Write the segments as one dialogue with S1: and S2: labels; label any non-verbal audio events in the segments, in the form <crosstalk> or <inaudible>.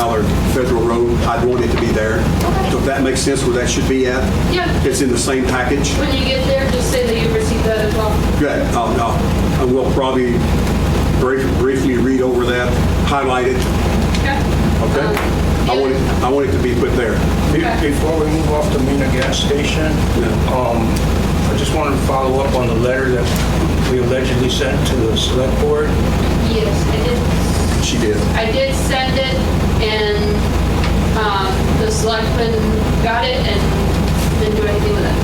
S1: or Federal Road, I'd want it to be there. So if that makes sense where that should be at?
S2: Yeah.
S1: It's in the same package?
S2: When you get there, just say that you received that as well.
S1: Good, I'll, I'll, I will probably brief- briefly read over that, highlight it,
S2: Okay.
S1: okay?
S2: Um,
S1: I want it, I want it to be put there.
S2: Okay.
S3: Before we move off the Mina gas station, um, I just wanted to follow up on the letter that we allegedly sent to the select board.
S2: Yes, I did,
S1: She did.
S2: I did send it, and um, the selectmen got it and didn't do anything with it.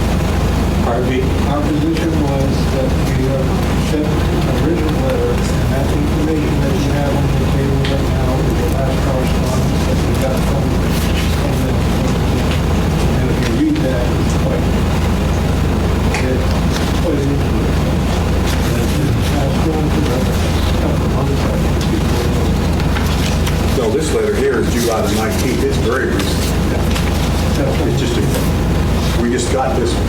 S3: Harvey,
S4: Our position was that we have sent an original letter, and that's the information that you have on the table right now, is the last correspondence that we got from from the... And if you read that, it's quite, it's quite interesting. Now, it's going to the couple of other documents before,
S1: So this letter here is July the 19th, it's very recent. It's just, a- we just got this, one.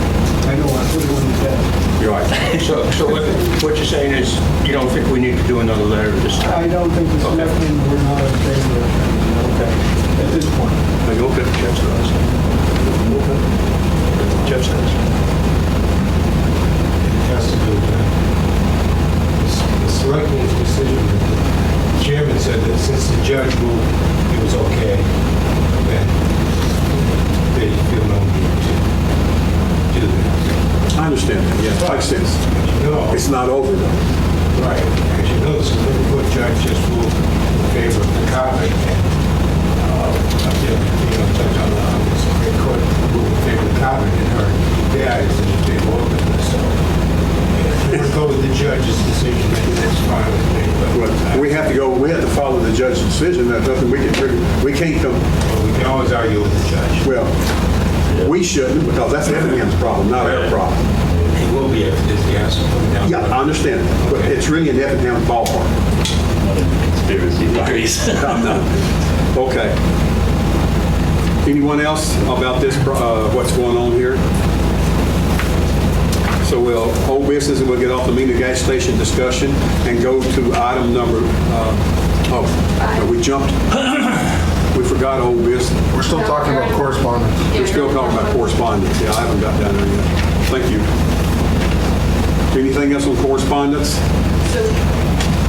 S4: I know, I put it on the desk.
S1: you're right.
S3: so so what what you're saying is you don't think we need to do another letter at this time?
S4: I don't think the selectmen were not in favor of it, okay, at this point.
S3: Are you okay? Jeff says. Jeff says.
S5: has to do with that. The selectmen's decision, the chairman said that since the judge ruled it was okay, then they feel no need to do that.
S1: I understand that, yes, makes sense.
S5: As you know,
S1: It's not over though.
S5: right, as you know, the Supreme Court judge just ruled in favor of the convict. and, uh, up there, You know, Judge on the on the Supreme Court ruled in favor of the convict and her dad is in favor of it, so. If you go with the judge's decision, then that's fine with me, but.
S1: We have to go, we have to follow the judge's decision, there's nothing we can, do. we can't come,
S5: We can always argue with the judge.
S1: well, we shouldn't, because that's Effingham's problem, not our problem.
S5: It will be if there's the answer coming down.
S1: Yeah, I understand, but it's really an Effingham ballpark.
S6: conspiracy theories.
S1: <laughs> Okay. Anyone else about this, uh, what's going on here? So we'll, old business, and we'll get off the Mina gas station discussion and go to item number, uh, oh, no, we jumped. <coughs> We forgot old business.
S7: We're still talking about correspondence.
S1: We're still talking about correspondence. Yeah, I haven't got down there yet. Thank you. Anything else on correspondence?
S2: So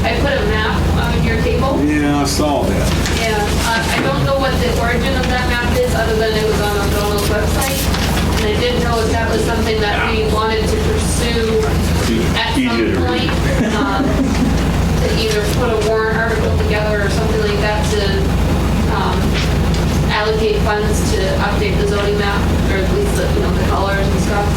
S2: I put a map on your table.
S1: Yeah, I saw that.
S2: Yeah, uh, I don't know what the origin of that map is, other than it was on O'Donnell's website. And I didn't know if that was something that we wanted to pursue at some
S6: Easier to read.
S2: point. um, To either put a warrant article together or something like that to um, allocate funds to update the zoning map, or at least, the, you know, the colors and stuff.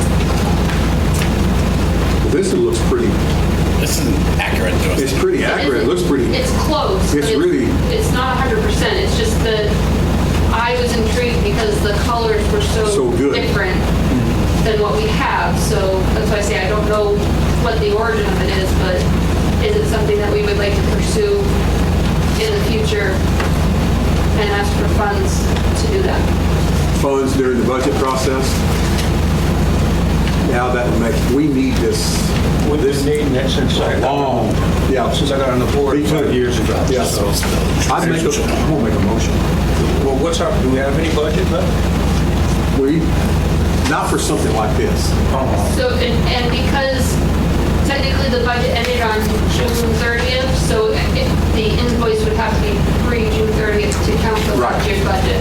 S1: This one looks pretty,
S6: <laughs> This isn't accurate to us.
S1: it's pretty accurate. It looks pretty.
S2: It's close. but
S1: It's really-
S2: It's not hundred percent, it's just that I was intrigued because the colors were so.
S1: So good.
S2: Different than what we have, so that's why I say I don't know what the origin of it is, but is it something that we would like to pursue in the future and ask for funds to do that?
S1: funds during the budget process. Now that would make, we need this,
S3: We've been
S1: this
S3: needing that since I,
S1: long, yeah.
S3: since I got on the
S1: Me
S3: board
S1: too.
S3: five years ago.
S1: Yeah.
S3: So,
S1: I'd make a, I'm gonna make a motion.
S3: Well, what's up? Do we have any budget left?
S1: We, not for something like this.
S3: Oh.
S2: So, and, and because technically the budget ended on June thirtieth, so it- the invoice would have to be pre-June thirtieth to count the
S1: Right.
S2: last year's budget.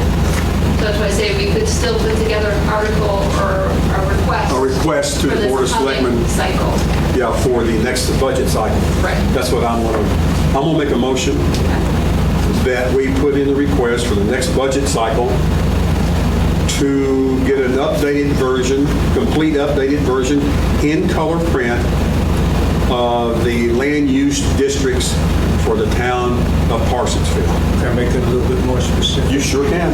S2: So that's why I say we could still put together an article or a request.
S1: A request to
S2: for
S1: the
S2: this
S1: Board of
S2: coming
S1: Selectmen.
S2: Cycle.
S1: Yeah, for the next budget cycle.
S2: Right.
S1: That's what I'm gonna, I'm gonna make a motion that we put in the request for the next budget cycle to get an updated version, complete updated version in color print of the land use districts for the town of Parsonsville.
S3: Can I make it a little bit more specific?
S1: You sure can.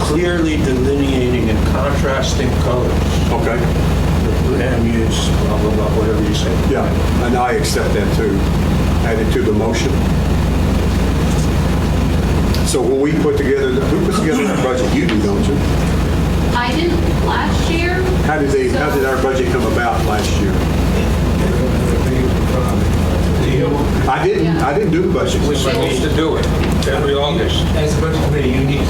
S3: clearly delineating and contrasting colors.
S1: Okay.
S3: Land use, blah, blah, blah, whatever you say.
S1: Yeah, and I accept that too. Add it to the motion. So when we put together, who puts together our budget? You do, don't you?
S2: I didn't last year.
S1: How did they, how did our budget come about last year?
S3: The-
S1: I didn't, I didn't do the budget.
S3: We're supposed to do it every August.
S5: As a budget committee, you